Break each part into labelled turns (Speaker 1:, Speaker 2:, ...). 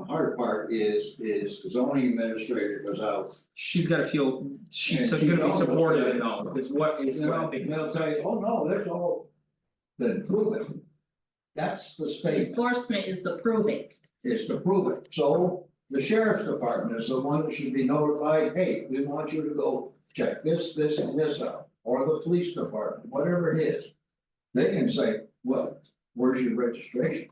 Speaker 1: harder part is, is the zoning administrator goes out.
Speaker 2: She's gotta feel, she's
Speaker 1: And
Speaker 2: so-
Speaker 1: she
Speaker 2: gonna be
Speaker 1: knows
Speaker 2: supportive and
Speaker 1: that.
Speaker 2: all, it's what, it's what I'm
Speaker 1: And
Speaker 2: thinking.
Speaker 1: they'll tell you, oh, no, there's all, then prove it. That's the state,
Speaker 3: Enforcement is the proving.
Speaker 1: is to prove it, so the sheriff's department is the one that should be notified, hey, we want you to go check this, this and this out. Or the police department, whatever it is, they can say, well, where's your registration?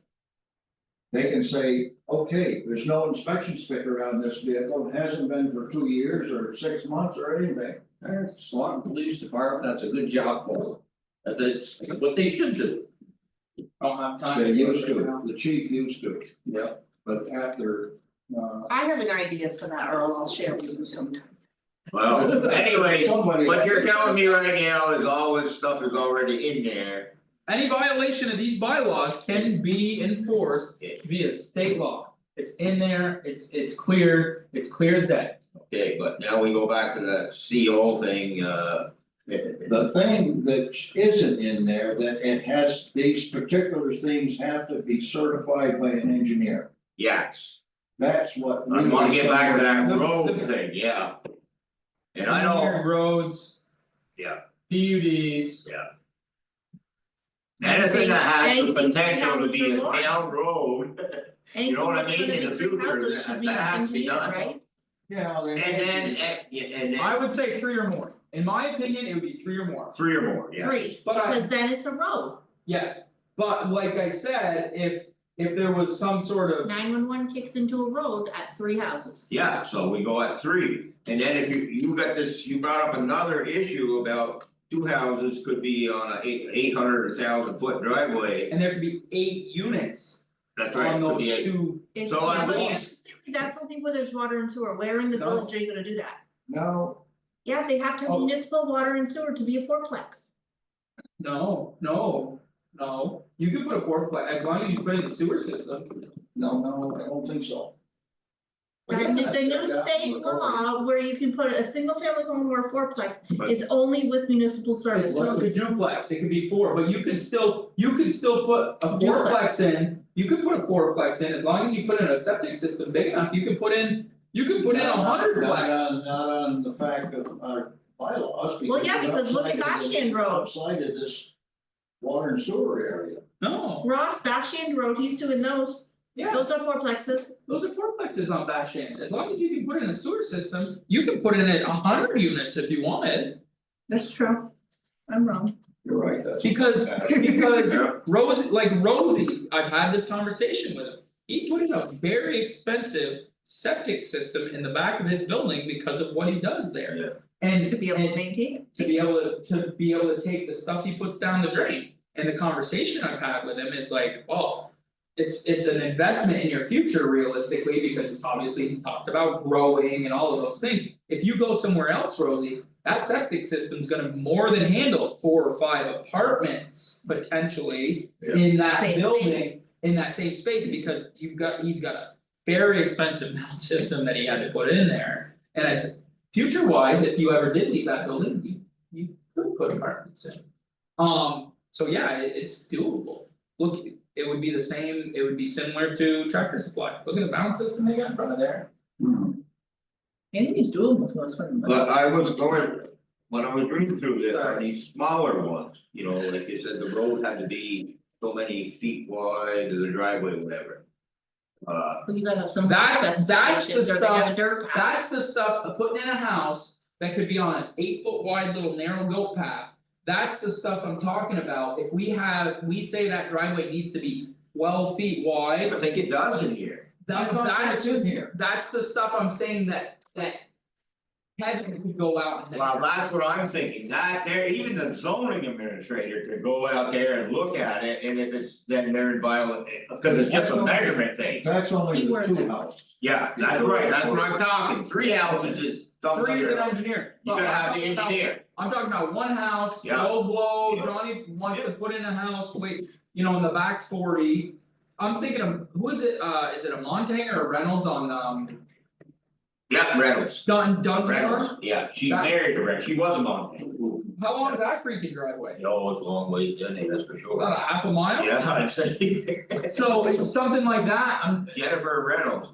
Speaker 1: They can say, okay, there's no inspection sticker on this vehicle, it hasn't been for two years or six months or anything.
Speaker 4: Alright, Swanton Police Department, that's a good job for them, that's what they should do.
Speaker 2: Don't have time.
Speaker 1: They
Speaker 2: do it
Speaker 1: used
Speaker 2: right
Speaker 1: to,
Speaker 2: now.
Speaker 1: the chief used to,
Speaker 2: Yeah,
Speaker 1: but after, uh.
Speaker 3: I have an idea for that, Earl, I'll share with you sometime.
Speaker 5: Well, Oh, anyway,
Speaker 1: somebody-
Speaker 5: what you're telling me right now is all this stuff is already in there.
Speaker 2: any violation of these bylaws can be enforced via state law. It's in there, it's it's clear, it's clear as day.
Speaker 5: Okay, but now we go back to that CO thing, uh.
Speaker 1: The thing that isn't in there, that it has, these particular things have to be certified by an engineer.
Speaker 5: Yes,
Speaker 1: That's what.
Speaker 5: I wanna get back to that road
Speaker 2: The-
Speaker 5: thing, yeah. And I don't,
Speaker 2: Engineered Roads.
Speaker 5: Yeah.
Speaker 2: PUDs,
Speaker 5: anything that has the
Speaker 3: Anything-
Speaker 5: potential to be a
Speaker 3: anything for
Speaker 5: town road,
Speaker 3: Anything
Speaker 5: know what I
Speaker 3: that's
Speaker 5: mean?
Speaker 3: gonna
Speaker 5: In
Speaker 3: be
Speaker 5: the
Speaker 3: three
Speaker 5: future,
Speaker 3: houses
Speaker 5: that-
Speaker 3: should be
Speaker 5: that has to be
Speaker 3: engineered,
Speaker 5: done.
Speaker 3: right?
Speaker 1: Yeah, they.
Speaker 5: and then, eh, yeah, and
Speaker 2: I
Speaker 5: then
Speaker 2: would say three or more, in my opinion, it would be three or more.
Speaker 5: three or more, yeah.
Speaker 3: Three,
Speaker 2: But I-
Speaker 3: because then it's a road,
Speaker 2: Yes, but like I said, if if there was some sort of,
Speaker 3: nine one one kicks into a road at three houses.
Speaker 5: Yeah, so we go at three, and then if you, you got this, you brought up another issue about two houses could be on a eight, eight hundred or thousand foot driveway.
Speaker 2: and there could be eight units
Speaker 5: That's right,
Speaker 2: on
Speaker 5: could
Speaker 2: those
Speaker 5: be eight.
Speaker 2: two,
Speaker 3: It's-
Speaker 5: So I
Speaker 3: but
Speaker 5: want-
Speaker 3: here's the thing, That's only where there's water and sewer, where in the
Speaker 2: No.
Speaker 3: village are you gonna do that?
Speaker 1: No,
Speaker 3: Yeah, they have to have
Speaker 2: Oh.
Speaker 3: municipal water and sewer to be a fourplex.
Speaker 2: no, no, no, you could put a fourplex, as long as you put in the sewer system.
Speaker 1: no, no, I don't think so.
Speaker 3: And the the new
Speaker 1: Yeah,
Speaker 3: state
Speaker 1: that's-
Speaker 3: law where you can put a single family home or a fourplex
Speaker 5: But-
Speaker 3: is only with municipal service.
Speaker 2: It's like a duplex, it could be four, but you could still, you could still put a fourplex in, you could put a fourplex in, as long as you put in a septic system big enough, you could put in. You could put in a hundredplex.
Speaker 1: Not on, not on the fact of our bylaws, because.
Speaker 3: Well, yeah,
Speaker 1: it's
Speaker 3: because look at
Speaker 1: outside of the-
Speaker 3: Goshen Road.
Speaker 1: Outside of this water and sewer area.
Speaker 2: No,
Speaker 3: Ross, Bashand Road, he's doing those,
Speaker 2: yeah,
Speaker 3: those are fourplexes,
Speaker 2: those are fourplexes on Bash End, as long as you can put in a sewer system, you can put in it a hundred units if you wanted.
Speaker 3: that's true. I'm wrong.
Speaker 1: You're right, that's.
Speaker 2: Because because
Speaker 5: Yeah.
Speaker 2: Rosie, like Rosie, I've had this conversation with him. He put in a very expensive septic system in the back of his building because of what he does there.
Speaker 5: Yeah.
Speaker 2: And
Speaker 3: To be able to
Speaker 2: and
Speaker 3: maintain it.
Speaker 2: to be able to to be able to take the stuff he puts down the drain. And the conversation I've had with him is like, well, it's it's an investment in your future realistically, because obviously he's talked about growing and all of those things. If you go somewhere else, Rosie, that septic system's gonna more than handle four or five apartments potentially
Speaker 5: Yeah.
Speaker 2: in that
Speaker 3: Same
Speaker 2: building,
Speaker 3: space.
Speaker 2: in that same space, because you've got, he's got a very expensive mound system that he had to put in there. And I said, future wise, if you ever did leave that building, you you could put apartments in. Um, so yeah, it it's doable. Look, it would be the same, it would be similar to tractor supply. Look at the mound system they got in front of there.
Speaker 1: Hmm.
Speaker 3: Anything's doable for us, for the-
Speaker 5: But I was going, when I was reading through this, on
Speaker 2: Sorry.
Speaker 5: these smaller ones, you know, like you said, the road had to be so many feet wide, or the driveway, whatever. Uh,
Speaker 3: But you gotta have some.
Speaker 2: That's- that's the
Speaker 3: specifications, or they have
Speaker 2: stuff-
Speaker 3: a dirt path.
Speaker 2: That's the stuff of putting in a house that could be on an eight foot wide little narrow goat path. That's the stuff I'm talking about. If we have, we say that driveway needs to be twelve feet
Speaker 5: I
Speaker 2: wide.
Speaker 5: think it does in here,
Speaker 1: I
Speaker 2: That
Speaker 1: thought
Speaker 2: that's
Speaker 1: that's in
Speaker 2: just,
Speaker 1: here.
Speaker 2: that's the stuff I'm saying that that. Kevin could go out and.
Speaker 5: well, that's what I'm thinking, that there, even the zoning administrator could go out there and look at it, and if it's, then they're in viola- cause it's just a measurement thing.
Speaker 1: That's only
Speaker 3: You
Speaker 1: the
Speaker 3: were
Speaker 1: two
Speaker 3: there.
Speaker 1: houses.
Speaker 5: Yeah, that's right, that's what I'm talking, three houses is something
Speaker 2: Three is an
Speaker 5: under,
Speaker 2: engineer.
Speaker 5: you gotta have the engineer,
Speaker 2: I'm talking about one house,
Speaker 5: Yeah.
Speaker 2: low blow,
Speaker 5: Yeah.
Speaker 2: Johnny wants to put in a house, wait, you know, in the back forty. I'm thinking of, who is it, uh, is it a Montang or a Reynolds on um
Speaker 5: yeah, Reynolds,
Speaker 2: Dun Dunmore?
Speaker 5: Reynolds, yeah, she
Speaker 2: That-
Speaker 5: married her, she was a Montana.
Speaker 2: How long is that freaking driveway?
Speaker 5: It always a long ways, doesn't it, that's for
Speaker 2: About
Speaker 5: sure.
Speaker 2: a half a mile?
Speaker 5: Yeah, I'd say
Speaker 2: So something like that, I'm
Speaker 5: Jennifer Reynolds,